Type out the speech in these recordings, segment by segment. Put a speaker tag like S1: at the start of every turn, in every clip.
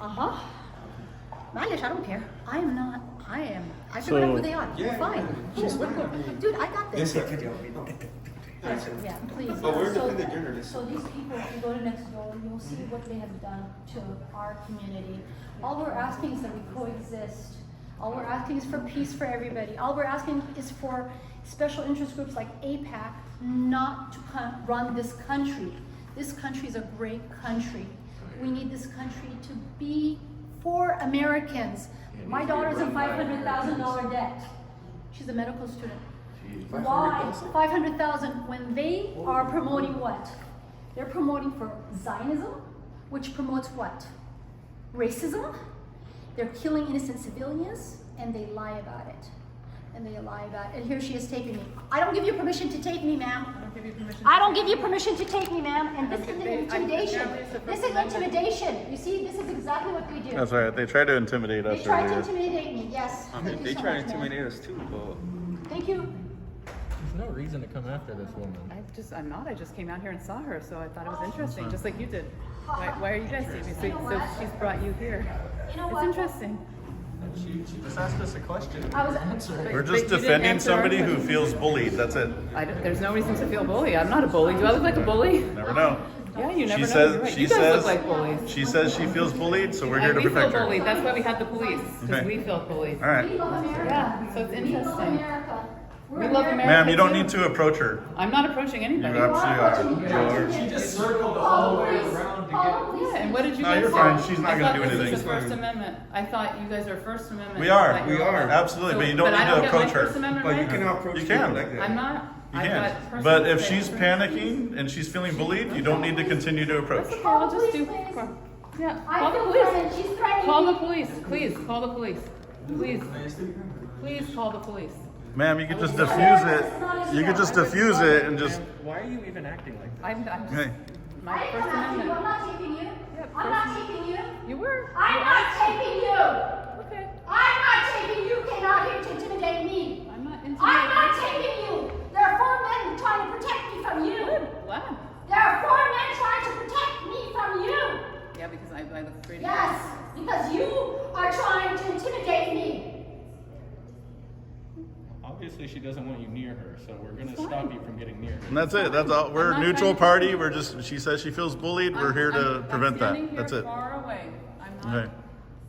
S1: Uh huh. Malish, I don't care. I am not. I am. I
S2: So-
S1: figured out who they are.
S3: Yeah,
S1: Fine.
S3: yeah,
S1: Cool,
S3: she's
S1: we're
S3: fine.
S1: cool. Dude, I got this.
S3: Yes, sir. Yes, sir.
S1: Yeah, please.
S3: But we're
S4: So-
S3: defending the journalists.
S4: So these people, if you go to next door, you'll see what they have done to our community. All we're asking is that we coexist. All we're asking is for peace for everybody. All we're asking is for special interest groups like APAC not to co- run this country. This country is a great country. We need this country to be for Americans. My daughter's in five hundred thousand dollar debt. She's a medical student. Why?
S3: 500,000.
S4: Five hundred thousand, when they are promoting what? They're promoting for Zionism, which promotes what? Racism? They're killing innocent civilians, and they lie about it. And they lie about it, and here she is taping me. I don't give you permission to tape me, ma'am.
S1: don't give you permission.
S4: I don't give you permission to take me, ma'am, and this is
S1: Okay, I-
S4: intimidation.
S1: yeah, it's the
S4: This
S1: First
S4: is
S1: Amendment.
S4: intimidation. You see, this is exactly what they do.
S2: That's right. They tried to intimidate us
S4: They tried to
S2: earlier.
S4: intimidate me, yes.
S3: I
S4: Thank
S3: mean,
S4: you
S3: they
S4: so
S3: try to
S4: much, ma'am.
S3: intimidate us too, but
S4: Thank you.
S5: There's no reason to come after this woman.
S1: I just, I'm not. I just came out here and saw her, so I thought it
S2: Oh,
S1: was interesting, just like you did. Why, why are you guys seeing me? So, so she's brought you here.
S4: You know
S1: It's
S4: what?
S1: interesting.
S3: she, she just asked us a question.
S4: I was,
S2: We're
S1: But-
S2: just
S1: but you didn't
S2: defending
S1: answer our
S2: somebody who
S1: question.
S2: feels bullied. That's it.
S1: I don't- there's no reason to feel bully. I'm not a bully. Do I look like a bully?
S2: Never know.
S1: Yeah, you never know.
S2: says-
S1: You're right.
S2: she
S1: you guys
S2: says-
S1: look like bullies.
S2: She says she feels bullied, so we're here
S1: And
S2: to
S1: we feel
S2: protect her.
S1: bullied. That's why we have the police, because
S2: Okay.
S1: we feel bullied.
S2: All
S4: We
S2: right.
S4: love America.
S1: Yeah, so it's
S4: We love
S1: interesting.
S4: America. We're
S1: We love America.
S2: Ma'am, you don't
S1: too.
S2: need to approach her.
S1: I'm not approaching
S2: You
S1: anybody.
S2: absolutely are. You are.
S3: She just circled all the way around to get.
S1: Yeah, and what did you
S2: No,
S1: guys
S2: you're
S1: say?
S2: fine. She's not
S1: I
S2: gonna
S1: thought
S2: do
S1: this was
S2: anything.
S1: the First Amendment. I thought you guys are First Amendment.
S2: We are.
S1: Like,
S2: We
S1: you're
S2: are.
S1: all-
S2: Absolutely, but you don't
S1: but
S2: need
S1: I
S2: to
S1: don't get my
S2: approach her.
S1: First Amendment
S3: But you
S1: rights?
S3: can approach
S2: You can.
S3: people like that.
S1: I'm not.
S2: You
S1: I've
S2: can.
S1: got
S2: not
S1: personal
S2: But if
S1: space.
S2: she's panicking and she's feeling bullied, you don't need to continue to approach.
S1: Okay, I'll just do.
S4: Please, please.
S1: Yeah.
S4: I
S1: Call the
S4: feel
S1: police.
S4: threatened. She's threatening
S1: Call the
S4: me.
S1: police. Please. Call the police. Please. Please call the police.
S2: Ma'am, you could just defuse it. You could just defuse it and just.
S5: Why are you even acting like that?
S1: I'm. I'm just,
S2: Hey,
S1: my
S4: I didn't
S1: First
S4: come after you. I'm
S1: Amendment.
S4: not taping you.
S1: Yep,
S4: I'm not taping you.
S1: You were.
S4: I'm not taping you.
S1: Okay.
S4: I'm not taping you. Came out here to intimidate me.
S1: I'm not
S4: I'm not
S1: intimidated.
S4: taping you. There are four men trying to protect me from you.
S1: Wow.
S4: There are four men trying to protect me from you.
S1: Yeah, because I, I look pretty.
S4: Yes, because you are trying to intimidate me.
S6: Obviously, she doesn't want you near her, so we're gonna
S1: Fine.
S6: stop you from getting near her.
S2: and that's it. That's all. We're
S1: I'm not trying
S2: neutral
S1: to-
S2: party. We're just. She says she feels bullied. We're
S1: I'm-
S2: here
S1: I'm-
S2: to
S1: I'm
S2: prevent
S1: standing
S2: that.
S1: here
S2: That's it.
S1: Far away. I'm not.
S2: Okay.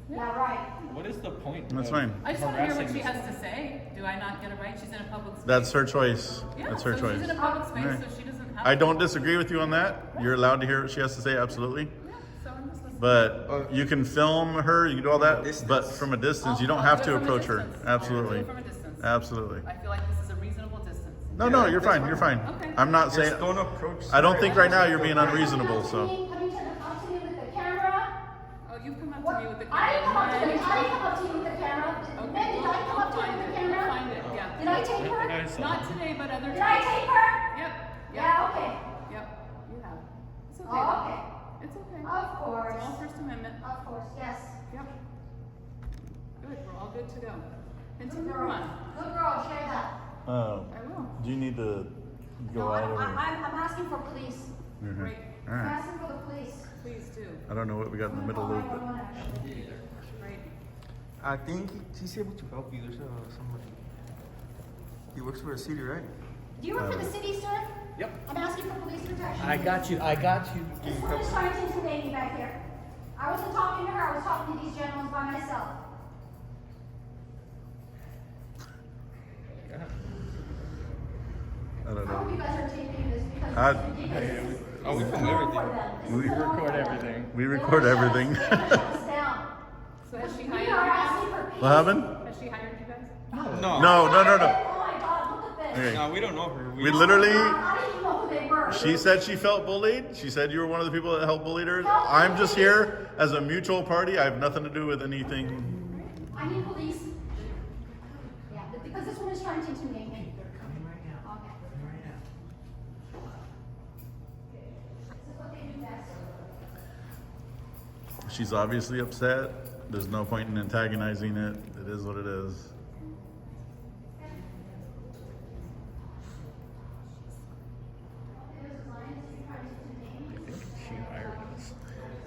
S4: Yeah, right.
S6: What is the point?
S2: That's
S6: of
S2: fine.
S1: I just want to hear what
S6: harassing
S1: she
S6: this
S1: has to say. Do I not get it right? She's in a public space.
S2: That's her choice.
S1: yeah,
S2: That's her
S1: so
S2: choice.
S1: She's in a public space,
S2: Alright.
S1: so she doesn't have.
S2: I
S1: to-
S2: don't disagree with you on that. You're allowed to hear what she has to say. Absolutely.
S1: Yeah, so I'm just listening.
S2: But you can film her, you can do all that,
S3: Distance.
S2: but from a distance, you
S1: I'll-
S2: don't
S1: I'll
S2: have
S1: do
S2: to
S1: it Oh, from a
S2: approach her.
S1: distance. I'll do it
S2: Absolutely.
S1: from a distance.
S2: Absolutely.
S1: I feel like this is a reasonable distance.
S2: No, no,
S3: Yeah,
S2: you're
S3: that's
S2: fine, you're fine.
S1: Okay.
S2: I'm not saying,
S3: Just don't approach.
S2: I don't think right now you're being
S4: Are you coming
S2: unreasonable,
S4: up to
S2: so.
S4: me- Are you trying to come up to me with the camera?
S1: Oh, you've come up
S4: What?
S1: to me with the
S4: I didn't come up to you. I
S1: camera.
S4: didn't come up to you with the camera. When did I come up to you with the
S1: I'll find
S4: camera?
S1: it. Yeah.
S4: Did I take
S6: What did I
S4: her?
S6: say?
S1: Not today, but other
S4: Did I
S1: times.
S4: take her?
S1: Yep.
S4: Yeah, okay.
S1: Yep. You have. It's
S4: Oh,
S1: okay. It's okay.
S4: okay. Of
S1: It's all
S4: course.
S1: First Amendment.
S4: Of course, yes.
S1: Yep. Good, we're all good to go.
S4: Good
S1: Continue
S4: girl.
S1: on.
S4: Good girl, share that.
S2: Uh,
S1: I will.
S2: Do you need to
S4: No, I don't, I, I'm, I'm asking for police.
S2: Okay.
S1: Great.
S2: Mm-hmm. All
S4: I'm
S2: right.
S4: asking for the police.
S1: Please do.
S2: I don't know what we got in the middle of, but.
S1: Great.
S3: I think she's able to help you. There's uh, somebody. He works for the city, right?
S4: Do you work for the city, sir?
S5: Uh, Yep.
S4: I'm asking for police protection.
S5: I got you. I got you.
S4: This woman's trying to intimidate me back here. I wasn't talking to her, I was talking to these gentlemen by myself.
S2: I don't
S4: I hope
S2: know.
S4: you guys are taking this because
S2: I-
S4: it's ridiculous.
S6: Oh, we
S4: This is
S6: film
S4: the norm for
S6: everything.
S4: them. This is
S2: We
S4: the norm
S6: Record
S4: for them.
S6: everything.
S2: We
S4: They
S2: record
S4: wanna shut
S2: everything.
S4: us- they wanna shut us down.
S1: So has she
S4: We are
S1: hired
S4: asking for peace.
S2: What happened?
S1: you? Has she hired you guys?
S6: uh,
S3: No.
S2: No, no, no, no.
S4: Oh my god, look at this.
S2: Okay.
S3: No, we don't know her.
S4: Oh my
S2: We
S4: God,
S2: literally,
S4: I didn't even know who they were.
S2: she said she felt bullied. She said you were one of the people that helped bully her. I'm just here as a mutual party. I have nothing to do with anything.
S4: I need police. Yeah, but because this woman's trying to intimidate me. They're coming right now. Okay. This is what they do best.
S2: She's obviously upset. There's no point in antagonizing it. It is what it is.